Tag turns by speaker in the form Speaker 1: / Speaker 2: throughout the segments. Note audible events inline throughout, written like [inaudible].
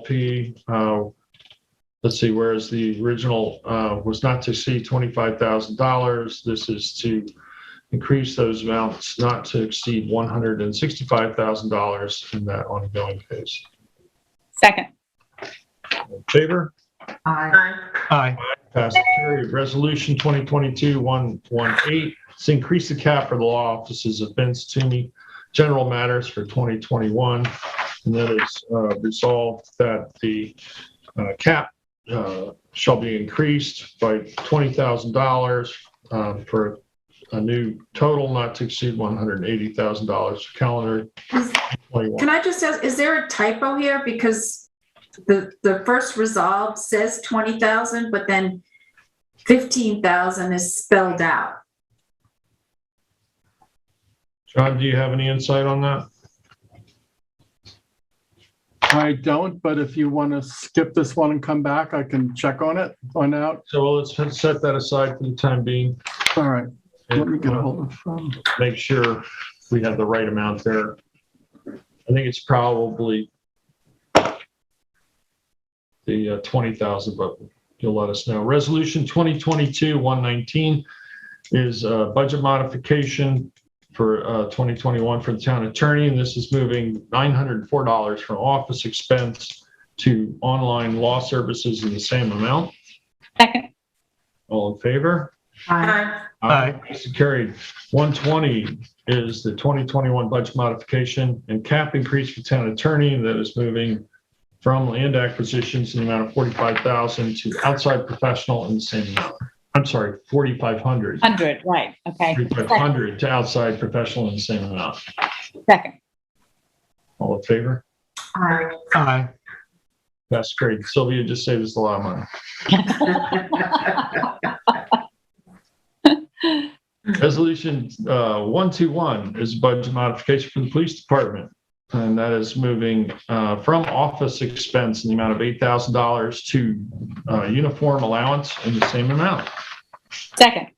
Speaker 1: LLP, uh, let's see, whereas the original uh, was not to exceed $25,000, this is to increase those amounts not to exceed $165,000 in that ongoing case.
Speaker 2: Second.
Speaker 1: All in Favor?
Speaker 3: Aye.
Speaker 4: Aye.
Speaker 5: Aye.
Speaker 1: Pass and carry. Resolution 2022-118, it's increase the cap for the law offices of Vince Toomey, general matters for 2021. And that is uh, resolved that the uh, cap uh, shall be increased by $20,000 uh, for a new total not to exceed $180,000 for calendar
Speaker 3: Is-
Speaker 1: 21.
Speaker 3: Can I just ask, is there a typo here? Because the, the first resolve says 20,000, but then 15,000 is spelled out.
Speaker 1: John, do you have any insight on that?
Speaker 6: I don't, but if you want to skip this one and come back, I can check on it, find out.
Speaker 1: So well, let's set that aside for the time being.
Speaker 6: All right, let me get
Speaker 1: And, uh,
Speaker 6: a hold of, um,
Speaker 1: make sure we have the right amount there. I think it's probably the uh, 20,000, but you'll let us know. Resolution 2022-119 is uh, budget modification for uh, 2021 for the town attorney, and this is moving $904 from office expense to online law services in the same amount.
Speaker 2: Second.
Speaker 1: All in favor?
Speaker 4: Aye.
Speaker 5: Aye.
Speaker 1: Motion carried. 120 is the 2021 budget modification and cap increase for town attorney that is moving from land acquisitions in the amount of 45,000 to outside professional in the same amount. I'm sorry, 4,500.
Speaker 2: 100, right. Okay.
Speaker 1: 4,500 to outside professional in the same amount.
Speaker 2: Second.
Speaker 1: All in favor?
Speaker 4: Aye.
Speaker 5: Aye.
Speaker 1: That's great. Sylvia just saved us a lot of money. Resolution uh, 121 is budget modification for the police department. And that is moving uh, from office expense in the amount of $8,000 to uh, uniform allowance in the same amount.
Speaker 2: Second.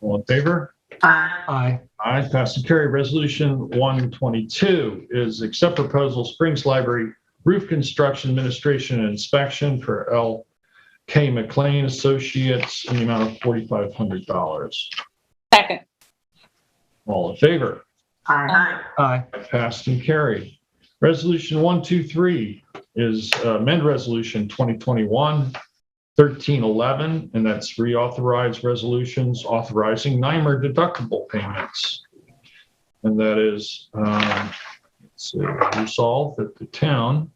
Speaker 1: All in favor?
Speaker 4: Aye.
Speaker 5: Aye.
Speaker 1: Aye, pass and carry. Resolution 122 is accept proposal Springs Library Roof Construction Administration and Inspection for L.K. McLean Associates in the amount of $4,500.
Speaker 2: Second.
Speaker 1: All in favor?
Speaker 4: Aye.
Speaker 5: Aye.
Speaker 1: Passed and carried. Resolution 123 is uh, amend resolution 2021 1311, and that's reauthorize resolutions authorizing NYMER deductible payments. And that is, um, let's see, resolve that the town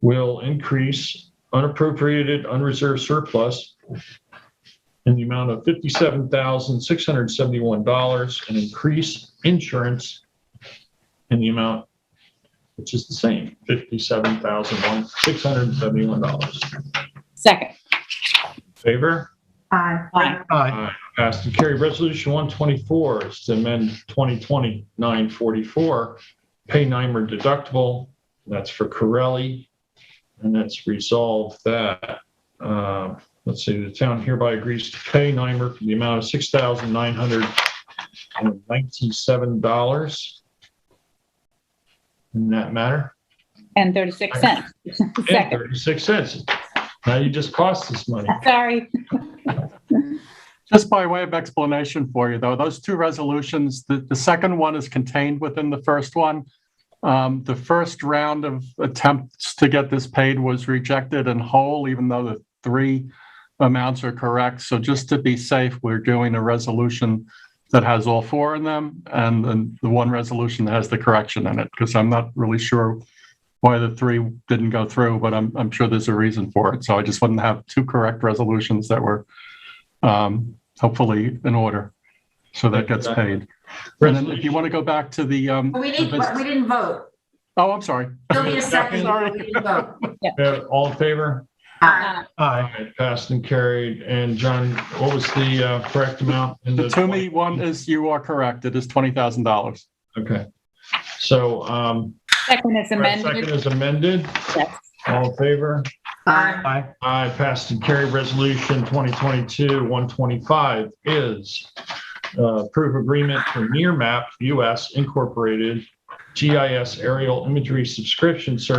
Speaker 1: will increase unappropriated unreserved surplus in the amount of $57,671 and increase insurance in the amount, which is the same, fifty-seven thousand one, six hundred and seventy-one dollars.
Speaker 2: Second.
Speaker 1: Favor?
Speaker 3: Aye.
Speaker 2: Aye.
Speaker 5: Aye.
Speaker 1: Passed and carried. Resolution one twenty-four is to amend 2020-944, pay NYMER deductible. That's for Corelli. And that's resolved that, uh, let's see, the town hereby agrees to pay NYMER for the amount of six thousand nine hundred and ninety-seven dollars. In that matter?
Speaker 2: And 36 cents. [laughs]
Speaker 1: Yeah,
Speaker 2: Second.
Speaker 1: 36 cents. Now you just cost us money.
Speaker 2: Sorry.
Speaker 6: just by way of explanation for you, though, those two resolutions, the, the second one is contained within the first one. Um, the first round of attempts to get this paid was rejected in whole, even though the three amounts are correct. So just to be safe, we're doing a resolution that has all four in them and then the one resolution that has the correction in it, because I'm not really sure why the three didn't go through, but I'm, I'm sure there's a reason for it. So I just wouldn't have two correct resolutions that were um, hopefully in order. So that gets paid. And then if you want to go back to the, um,
Speaker 3: We
Speaker 6: the
Speaker 3: didn't,
Speaker 6: business-
Speaker 3: we didn't vote.
Speaker 6: oh, I'm sorry.
Speaker 3: Sylvia seconded,
Speaker 6: Sorry.
Speaker 3: but we didn't vote.
Speaker 1: Uh, All in favor?
Speaker 3: Aye.
Speaker 2: Uh,
Speaker 5: Aye.
Speaker 1: Aye, Passed and carried. And John, what was the uh, correct amount? in
Speaker 6: The Toomey one is, you are correct. It is $20,000.
Speaker 1: Okay. So um,
Speaker 2: Second is
Speaker 1: second
Speaker 2: amended.
Speaker 1: is amended.
Speaker 2: Yes.
Speaker 1: All in favor?
Speaker 3: Aye.
Speaker 5: Aye.
Speaker 1: Aye, passed and carried. Resolution 2022-125 is uh, approve agreement for Nearmap US Incorporated GIS aerial imagery subscription service